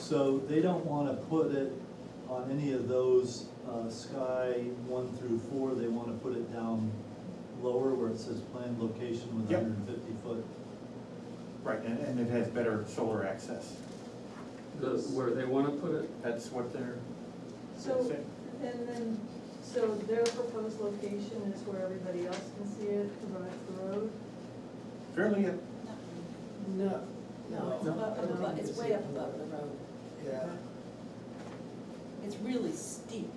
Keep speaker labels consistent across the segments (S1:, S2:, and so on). S1: So they don't wanna put it on any of those, uh, sky one through four, they wanna put it down lower where it says planned location with
S2: Yep.
S1: hundred and fifty foot.
S2: Right, and, and it has better solar access.
S3: The, where they wanna put it,
S2: That's what they're,
S4: So, and then, so their proposed location is where everybody else can see it, right the road?
S2: fairly,
S5: No,
S6: No, it's above,
S5: no, I
S6: up
S5: don't
S6: above,
S5: think
S6: it's
S5: it's
S6: way
S5: a-
S6: up above the road.
S5: yeah.
S6: It's really steep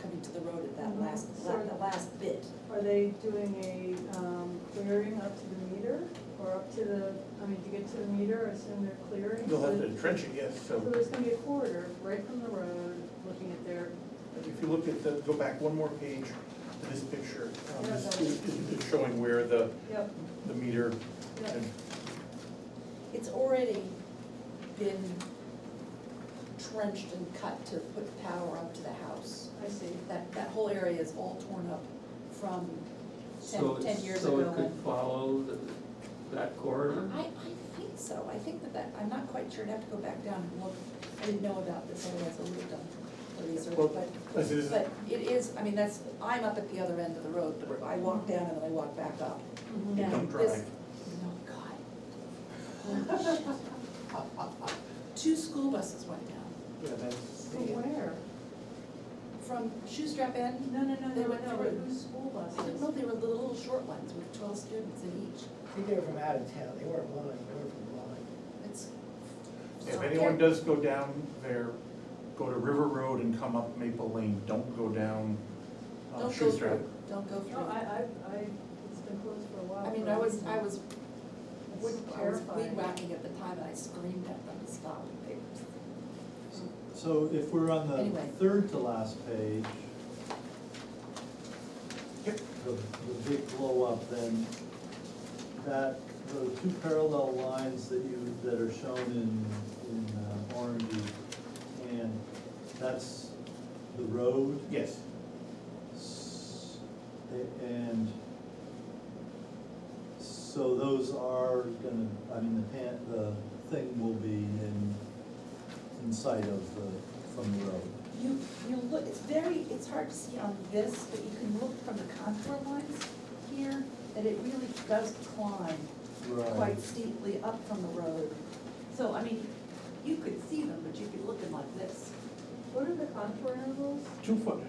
S6: coming to the road at that
S4: Mhm.
S6: last, la-
S4: Sort of.
S6: the last bit.
S4: Are they doing a um, clearing up to the meter or up to the, I mean, to get to the meter, I assume they're clearing?
S2: you'll have
S4: So-
S2: to trench it, yes,
S4: So
S2: so
S4: there's gonna be a corridor right from the road, looking at their,
S2: if you look at the, go back one more page to this picture, um,
S4: Yeah,
S2: this
S4: that
S2: is it's showing where the,
S4: yep,
S2: the meter,
S4: yep.
S2: and
S6: It's already been trenched and cut to put power up to the house.
S4: I see.
S6: That, that whole area is all torn up from
S3: so,
S6: ten, ten
S3: it's-
S6: years
S3: so
S6: ago.
S3: it could
S6: when-
S3: follow the, that corridor?
S6: I, I think so, I think that that, I'm not quite sure, I'd have to go back down and look, I didn't know about this, otherwise I would have done the research,
S2: Well,
S6: but,
S2: this is,
S6: but it is, I mean, that's, I'm up at the other end of the road, but I walk down and then I walk back up.
S4: Mm-hmm.
S2: you
S6: Yeah,
S2: don't
S6: this-
S2: drive.
S6: Oh, God.
S4: Oh,
S6: Two school buses went down
S2: Yeah, that's,
S4: From where?
S6: from Shoestrap End.
S4: No, no, no,
S6: They
S4: no,
S6: went
S4: no,
S6: through.
S4: whose school
S6: I didn't
S4: buses?
S6: know they were the little short ones with twelve students in each.
S5: I think they were from out of town, they weren't mine, they were from mine.
S6: It's.
S2: if anyone does go down there, go to River Road and come up Maple Lane, don't go down uh,
S6: Don't go
S2: Shoestrap.
S6: through, don't go
S4: No, I,
S6: through.
S4: I, I, it's been closed for a while.
S6: I mean,
S4: for a
S6: I was,
S4: reason.
S6: I was,
S4: It's
S6: wood- I was
S4: terrifying.
S6: weed whacking at the time and I screamed at them to stop. They-
S1: So if we're on the
S6: Anyway.
S1: third to last page.
S2: Yep.
S1: The, the big blow up then, that, the two parallel lines that you, that are shown in, in uh, orange, and that's the road.
S2: Yes,
S1: S- a- And so those are gonna, I mean, the pan, the thing will be in, in sight of the, from the road.
S6: You, you look, it's very, it's hard to see on this, but you can look from the contour lines here, that it really does climb quite steeply up from the road. So, I mean, you could see them, but you'd be looking like this.
S4: What are the contour intervals?
S2: two foot,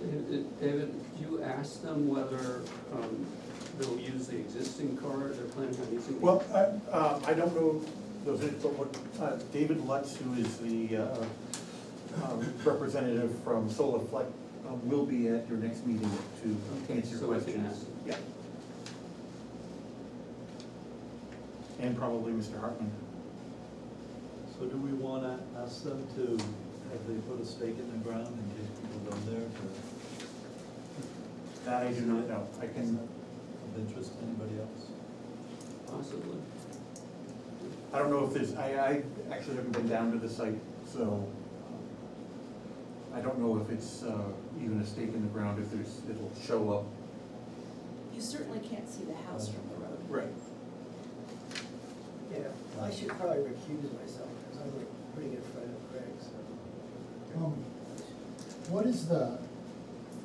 S3: David- David, you asked them whether, um, they'll use the existing corridor, they're planning on using? the-
S2: Well, I, um, I don't know those, but what, uh, David Lutz, who is the, uh, um, representative from Solar Flex, uh, will be at your next meeting to
S3: Okay,
S2: answer
S3: so I can
S2: questions.
S3: ask.
S2: Yeah. And probably Mr. Hartman.
S1: So do we wanna ask them to, have they put a stake in the ground in case people go there for,
S2: That I do not know. I
S1: is
S2: can,
S1: that of interest to anybody else?
S3: Possibly.
S2: I don't know if there's, I, I actually haven't been down to the site, so um, I don't know if it's, uh, even a stake in the ground, if there's, it'll show up.
S6: You certainly can't see the house from the road.
S2: Right.
S5: Yeah, I should probably recuse myself, because I'm a pretty good friend of Craig's, so.
S7: Um, What is the,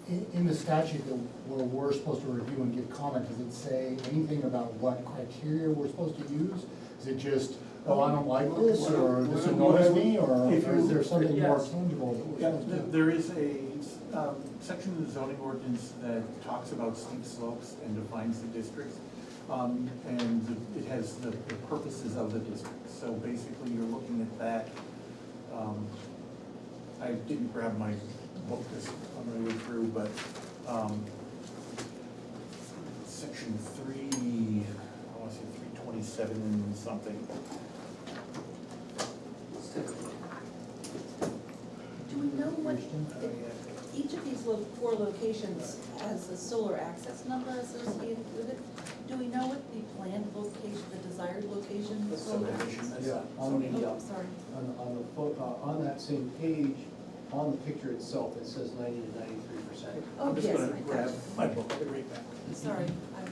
S7: in, in the statute that where we're supposed to review and give comment, does it say anything about what criteria we're supposed to use? Is it just, oh, I don't like this, or this annoys me, or
S2: If you-
S7: is there something more
S2: yes.
S7: tangible that we're
S2: Yeah,
S7: supposed
S2: th-
S7: to?
S2: there is a um, section of the zoning ordinance that talks about steep slopes and defines the districts. um, And it has the the purposes of the district. So basically, you're looking at that. um, I didn't grab my book this, on my way through, but um, section three, I want to say three twenty-seven something.
S3: Let's take a look.
S6: Do we know what,
S5: Oh,
S6: if
S5: yeah.
S6: each of these lo- four locations has a solar access number associated with it? Do we know what the planned location, the desired location of
S2: That's
S6: solar?
S2: subdivision, that's
S8: Yeah.
S2: zoning.
S6: Oh, sorry.
S8: On, on the, fo- uh, on that same page, on the picture itself, it says ninety to ninety-three percent.
S6: Oh,
S2: I'm just
S6: yes,
S2: gonna
S6: I got
S2: grab
S6: you.
S2: my book, I'll be right back.
S6: Sorry, I'm